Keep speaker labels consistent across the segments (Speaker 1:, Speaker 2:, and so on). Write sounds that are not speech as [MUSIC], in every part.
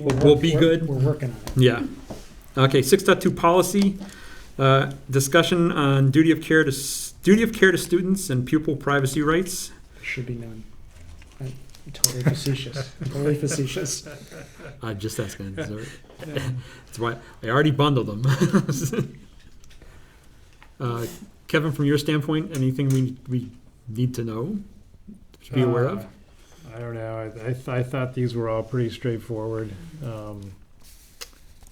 Speaker 1: We're
Speaker 2: will
Speaker 1: work-
Speaker 2: be
Speaker 1: we're-
Speaker 2: good.
Speaker 1: We're working on it.
Speaker 2: Yeah. Okay, six point two policy, uh, discussion on duty of care to, s- duty of care to students and pupil privacy rights.
Speaker 1: There Should be none. I'm Totally
Speaker 2: [LAUGHS]
Speaker 1: facetious, totally facetious.
Speaker 2: I just asking. That's all right. [LAUGHS] That's why, I already bundled them. [LAUGHS] Uh, Kevin, from your standpoint, anything we, we need to know, to be aware of?
Speaker 3: Uh, I don't know. I, I, th- I thought these were all pretty straightforward. Um,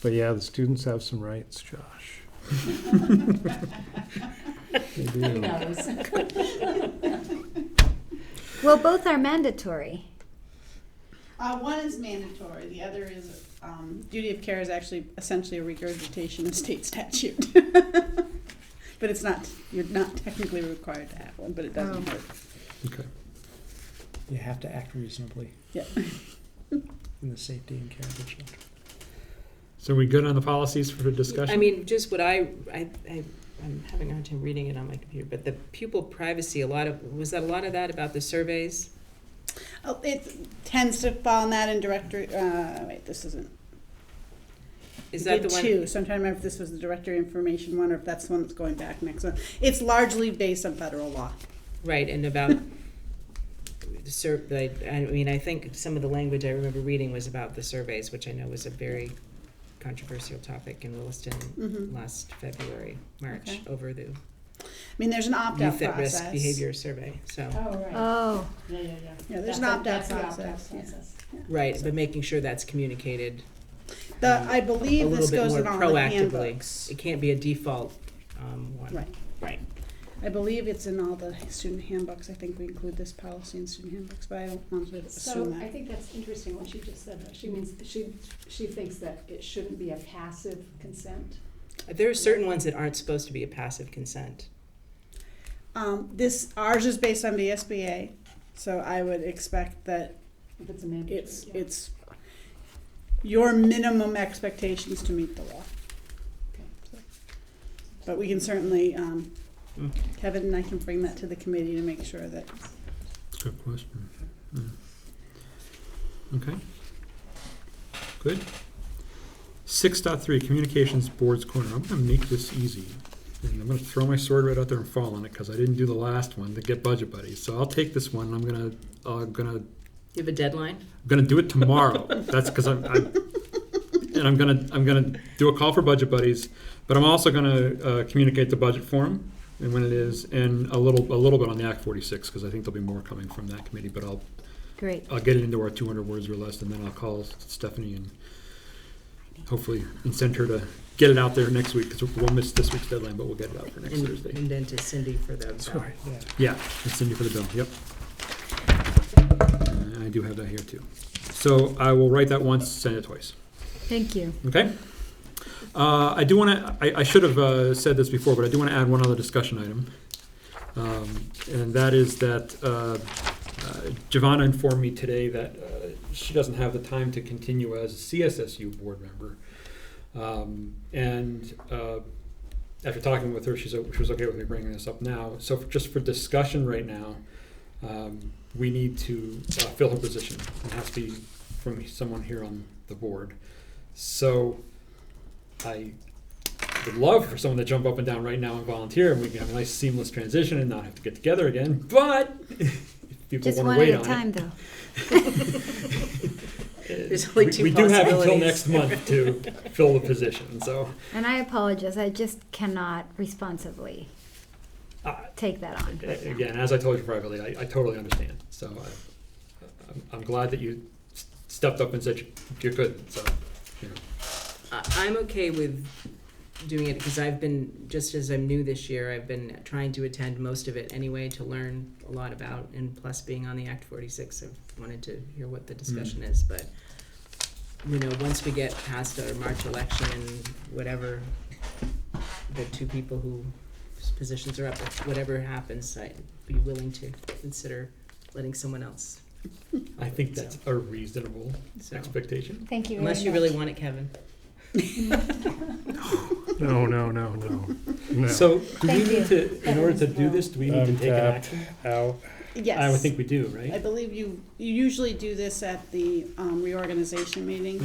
Speaker 3: but yeah, the students have some rights, Josh. They do.
Speaker 4: Well, both are mandatory.
Speaker 5: Uh, one is mandatory, the other is, um, duty of care is actually essentially a regurgitation of state statute. [LAUGHS] But it's not, you're not technically required to have one, but it doesn't
Speaker 4: Oh.
Speaker 5: hurt.
Speaker 2: Okay.
Speaker 1: You have to act reasonably.
Speaker 5: Yeah.
Speaker 1: [LAUGHS] In the safety and care of the children.
Speaker 2: So we good on the policies for discussion?
Speaker 6: I mean, just what I, I, I, I'm having a hard time reading it on my computer, but the pupil privacy, a lot of, was that a lot of that about the surveys?
Speaker 5: Oh, it tends to fall in that in directory, uh, wait, this isn't.
Speaker 6: Is
Speaker 5: We
Speaker 6: that the
Speaker 5: did
Speaker 6: one?
Speaker 5: Two, so I'm trying to remember if this was the directory information one or if that's the one that's going back next one. It's largely based on federal law.
Speaker 6: Right, and about, [LAUGHS] the sur, like, I mean, I think some of the language I remember reading was about the surveys, which I know was a very controversial topic in Williston
Speaker 5: Mhm.
Speaker 6: last February, March,
Speaker 5: Okay.
Speaker 6: over the
Speaker 5: I mean, there's an opt-out
Speaker 6: youth at
Speaker 5: process.
Speaker 6: risk behavior survey, so.
Speaker 7: Oh, right.
Speaker 4: Oh,
Speaker 7: Yeah, yeah, yeah.
Speaker 5: Uh, Yeah, there's
Speaker 7: That's
Speaker 5: an
Speaker 7: a-
Speaker 5: opt-out
Speaker 7: that's the
Speaker 5: process, yeah.
Speaker 7: process.
Speaker 6: Right, but making sure that's communicated
Speaker 5: The, I
Speaker 6: a
Speaker 5: believe
Speaker 6: little
Speaker 5: this
Speaker 6: bit
Speaker 5: goes
Speaker 6: more
Speaker 5: in all the
Speaker 6: proactively.
Speaker 5: handbooks.
Speaker 6: It can't be a default, um, one.
Speaker 5: Right.
Speaker 6: Right.
Speaker 5: I believe it's in all the student handbooks. I think we include this policy in student handbooks, but I don't want to assume
Speaker 7: So I
Speaker 5: that.
Speaker 7: think that's interesting what she just said. though. She means, she, she thinks that it shouldn't be a passive consent.
Speaker 6: There are certain ones that aren't supposed to be a passive consent.
Speaker 5: Um, this, ours is based on the SBA, so I would expect that
Speaker 7: If it's a mandatory.
Speaker 5: it's,
Speaker 7: yeah.
Speaker 5: it's your minimum expectations to meet the law. But we can certainly, um,
Speaker 6: Mm.
Speaker 5: Kevin and I can bring that to the committee to make sure that
Speaker 2: Good question. Mm. Okay. Good. Six point three communications boards corner. I'm gonna make this easy. And I'm gonna throw my sword right out there and fall on it, cause I didn't do the last one to get budget buddies. So I'll take this one, and I'm gonna, uh, gonna
Speaker 6: You have a deadline?
Speaker 2: I'm gonna do it tomorrow. That's because I'm, I'm, and I'm gonna I'm gonna do a call for budget buddies, but I'm also gonna uh, communicate the budget forum and when it is, and a little a little bit on the Act 46 because I think there'll be more coming from that committee. But I'll
Speaker 4: great.
Speaker 2: I'll get it into our 200 words or less, and then I'll call Stephanie and hopefully incent her to get it out there next week because we'll miss this week's deadline, but we'll get it out for next
Speaker 6: And-
Speaker 2: Thursday.
Speaker 6: And then to Cindy for the. Sorry.
Speaker 1: Yeah.
Speaker 2: Yeah, it's in you for the bill, yep. And I do have that here too. So I will write that once, send it twice,
Speaker 4: Thank you.
Speaker 2: okay? Uh, I do want to, I, I should have uh, said this before, but I do want to add one other discussion item. Um, And that is that uh, uh, Giovanna informed me today that uh, she doesn't have the time to continue as a CSSU board member. Um, And uh, after talking with her, she's, o- she was okay with me bringing this up now. So for- just for discussion right now, um, we need to uh, fill her position. It has to be from someone here on the board. So I would love for someone to jump up and down right now and volunteer, and we can have a nice seamless transition and not have to get together again. But if people
Speaker 4: Just
Speaker 2: want
Speaker 4: one
Speaker 2: to
Speaker 4: at
Speaker 2: wait
Speaker 4: a
Speaker 2: on
Speaker 4: time, though.
Speaker 2: it,
Speaker 6: There's only
Speaker 2: we-
Speaker 6: two
Speaker 2: we do have until
Speaker 6: possibilities.
Speaker 2: next month
Speaker 6: [LAUGHS]
Speaker 2: to fill the position. So
Speaker 4: And I apologize. I just cannot responsibly
Speaker 2: uh,
Speaker 4: take that on.
Speaker 2: A-
Speaker 4: right now.
Speaker 2: Again, as I told you privately, I, I totally understand. So I, I'm, I'm glad that you s- stepped up and said you- you're good. So, you know,
Speaker 6: I, I'm okay with doing it because I've been, just as I'm new this year, I've been trying to attend most of it anyway to learn a lot about, and plus being on the Act forty-six, I've wanted to hear what the discussion
Speaker 2: Mm.
Speaker 6: is, but you know, once we get past our March election and whatever, the two people whose positions are up, if whatever happens, I'd be willing to consider letting someone else,
Speaker 2: I think that's a reasonable
Speaker 6: so.
Speaker 2: expectation.
Speaker 4: Thank you.
Speaker 6: Unless you really want it, Kevin.
Speaker 3: No, no, no, no. no.
Speaker 2: So do we
Speaker 4: Thank you.
Speaker 2: need to, in order to do this, do we need to take an
Speaker 3: Untapped.
Speaker 2: action?
Speaker 3: Out.
Speaker 5: Yes.
Speaker 2: I would think we do, right?
Speaker 5: I believe you, you usually do this at the um, reorganization meeting.